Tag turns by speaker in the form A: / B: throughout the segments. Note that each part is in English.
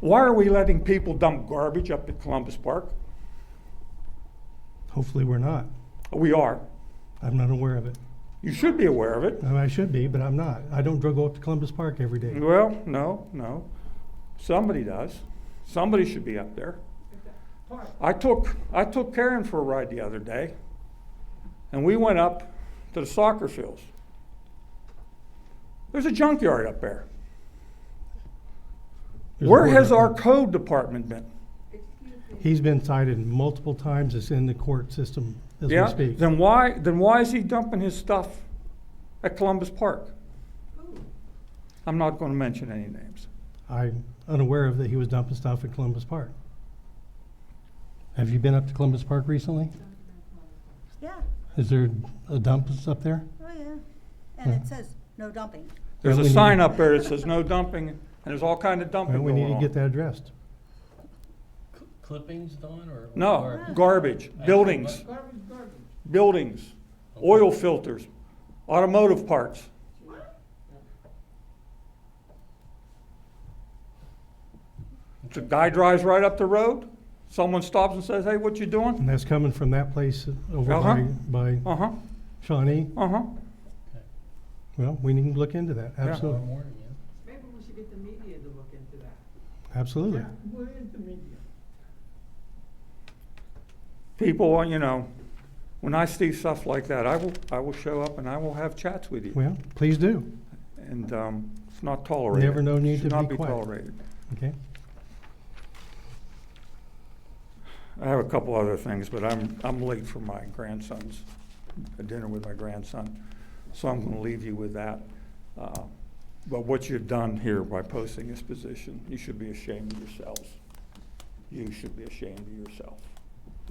A: Why are we letting people dump garbage up at Columbus Park?
B: Hopefully, we're not.
A: We are.
B: I'm not aware of it.
A: You should be aware of it.
B: I mean, I should be, but I'm not. I don't dr- go up to Columbus Park every day.
A: Well, no, no. Somebody does. Somebody should be up there. I took, I took Karen for a ride the other day, and we went up to the soccer fields. There's a junkyard up there.
B: There's a
A: Where
B: board
A: has
B: up
A: our
B: there.
A: code department been?
B: He's been cited multiple times. It's in the court system as we
A: Yeah,
B: speak.
A: then why, then why is he dumping his stuff at Columbus Park? Oh. I'm not gonna mention any names.
B: I'm unaware of that he was dumping stuff at Columbus Park. Have you been up to Columbus Park recently?
C: Yeah,
B: Is there a dump that's up there?
C: oh yeah. And
B: Hmm.
C: it says no dumping.
A: There's
B: Well,
A: a
B: we need-
A: sign up there that says no dumping, and there's all kind of dumping
B: Well, we
A: going
B: need to
A: on.
B: get that addressed.
D: Cl- Clippings, Don, or?
A: No,
D: or-
A: garbage, buildings, buildings, oil filters, automotive parts. The guy drives right up the road, someone stops and says, hey, what you doing?
B: And that's coming from that place over
A: Uh-huh.
B: by, by
A: Uh-huh,
B: Shawnee.
A: uh-huh.
B: Well, we need to look into that.
D: Tomorrow
B: Absolutely.
D: morning, yeah.
E: Maybe we should get the media to look into that.
B: Absolutely.
E: Where is the media?
A: People, you know, when I see stuff like that, I will, I will show up and I will have chats with you.
B: Well, please do.
A: And um, it's not tolerated.
B: Never no need
A: Should
B: to
A: not
B: be
A: be
B: quiet.
A: tolerated.
B: Okay.
A: I have a couple other things, but I'm, I'm late for my grandson's, a dinner with my grandson, so I'm gonna leave you with that. Uh, But what you've done here by posting this position, you should be ashamed of yourselves. You should be ashamed of yourself.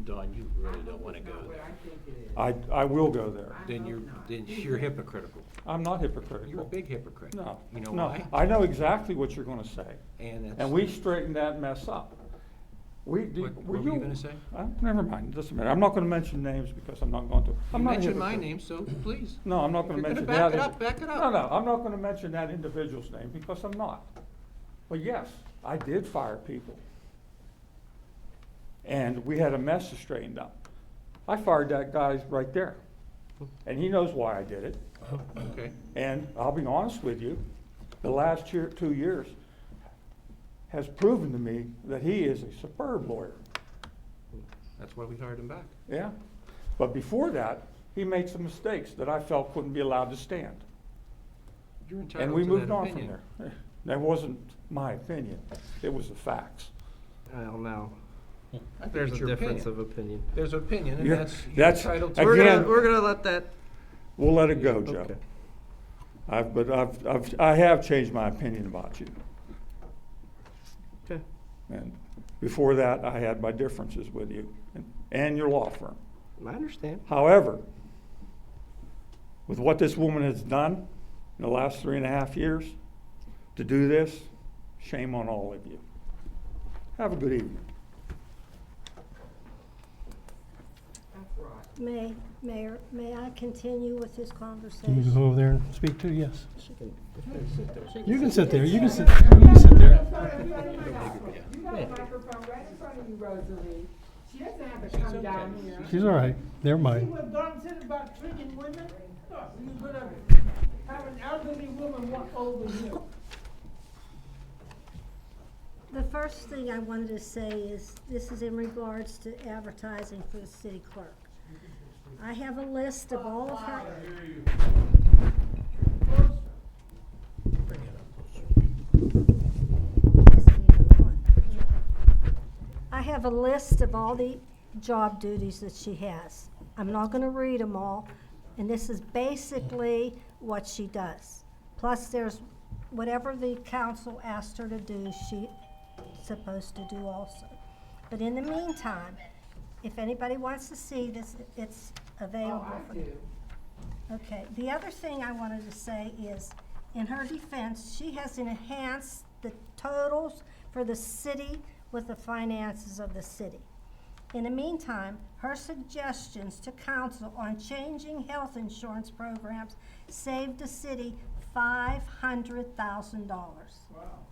F: Don, you really don't want to go
E: What I
F: there.
E: think it is.
A: I, I will go there.
F: Then you're, then you're hypocritical.
A: I'm not hypocritical.
F: You're a big hypocrite.
A: No,
F: You know
A: no,
F: why?
A: I know exactly what you're gonna say,
F: And it's.
A: and we straightened that mess up. We, did-
F: What-
A: were
F: what
A: you?
F: were you gonna say?
A: Uh, Never mind, doesn't matter. I'm not gonna mention names because I'm not going to.
F: You
A: I'm not a
F: mentioned my
A: hypocrite.
F: name, so please.
A: No, I'm not gonna
F: You're
A: mention
F: gonna
A: that.
F: back
A: indi-
F: it up, back it up.
A: No, no, I'm not gonna mention that individual's name because I'm not. But yes, I did fire people. And we had a mess straightened up. I fired that guy right there. And he knows why I did it.
F: Okay.
A: And I'll be honest with you, the last year, two years has proven to me that he is a superb lawyer.
F: That's why we hired him back.
A: Yeah. But before that, he made some mistakes that I felt couldn't be allowed to stand.
F: You're entitled
A: And
F: to
A: we
F: that
A: moved on from
F: opinion.
A: there. That wasn't my opinion, it was the facts.
G: Well, now,
F: I think
G: there's
F: it's
G: a
F: your
G: difference
F: opinion.
G: of opinion.
F: There's opinion, and
A: Yeah,
F: that's, you're
A: that's-
F: entitled
A: I
F: to.
G: We're
A: Again-
G: gonna, we're gonna let that,
A: We'll let it go, Joe.
G: okay.
A: I've, but I've, I've, I have changed my opinion about you.
G: Okay.
A: And before that, I had my differences with you and- and your law firm.
G: I understand.
A: However, with what this woman has done in the last three and a half years, to do this, shame on all of you. Have a good evening.
E: That's right.
H: May, Mayor, may I continue with this
B: You can
H: conversation?
B: go over there and speak to, yes.
G: She can- sit there. She
B: You
G: can-
B: can sit there. You can sit, you can sit there.
E: You got a microphone right in front of you, Rosalie. She doesn't have to come down here.
B: She's all right. Never
E: See
B: mind.
E: what Don said about treating women? Look, you could have, have an elderly woman walk over you.
H: The first thing I wanted to say is, this is in regards to advertising for the city clerk. I have a list of all of her, I have a list of all the job duties that she has. I'm not gonna read them all, and this is basically what she does. Plus, there's whatever the council asked her to do, she supposed to do also. But in the meantime, if anybody wants to see this, it's
E: Oh,
H: available. for- Okay, the other thing I wanted to say is, in her defense, she has enhanced the totals for the city with the finances of the city. In the meantime, her suggestions to council on changing health insurance programs saved the city five hundred thousand dollars.
E: Wow.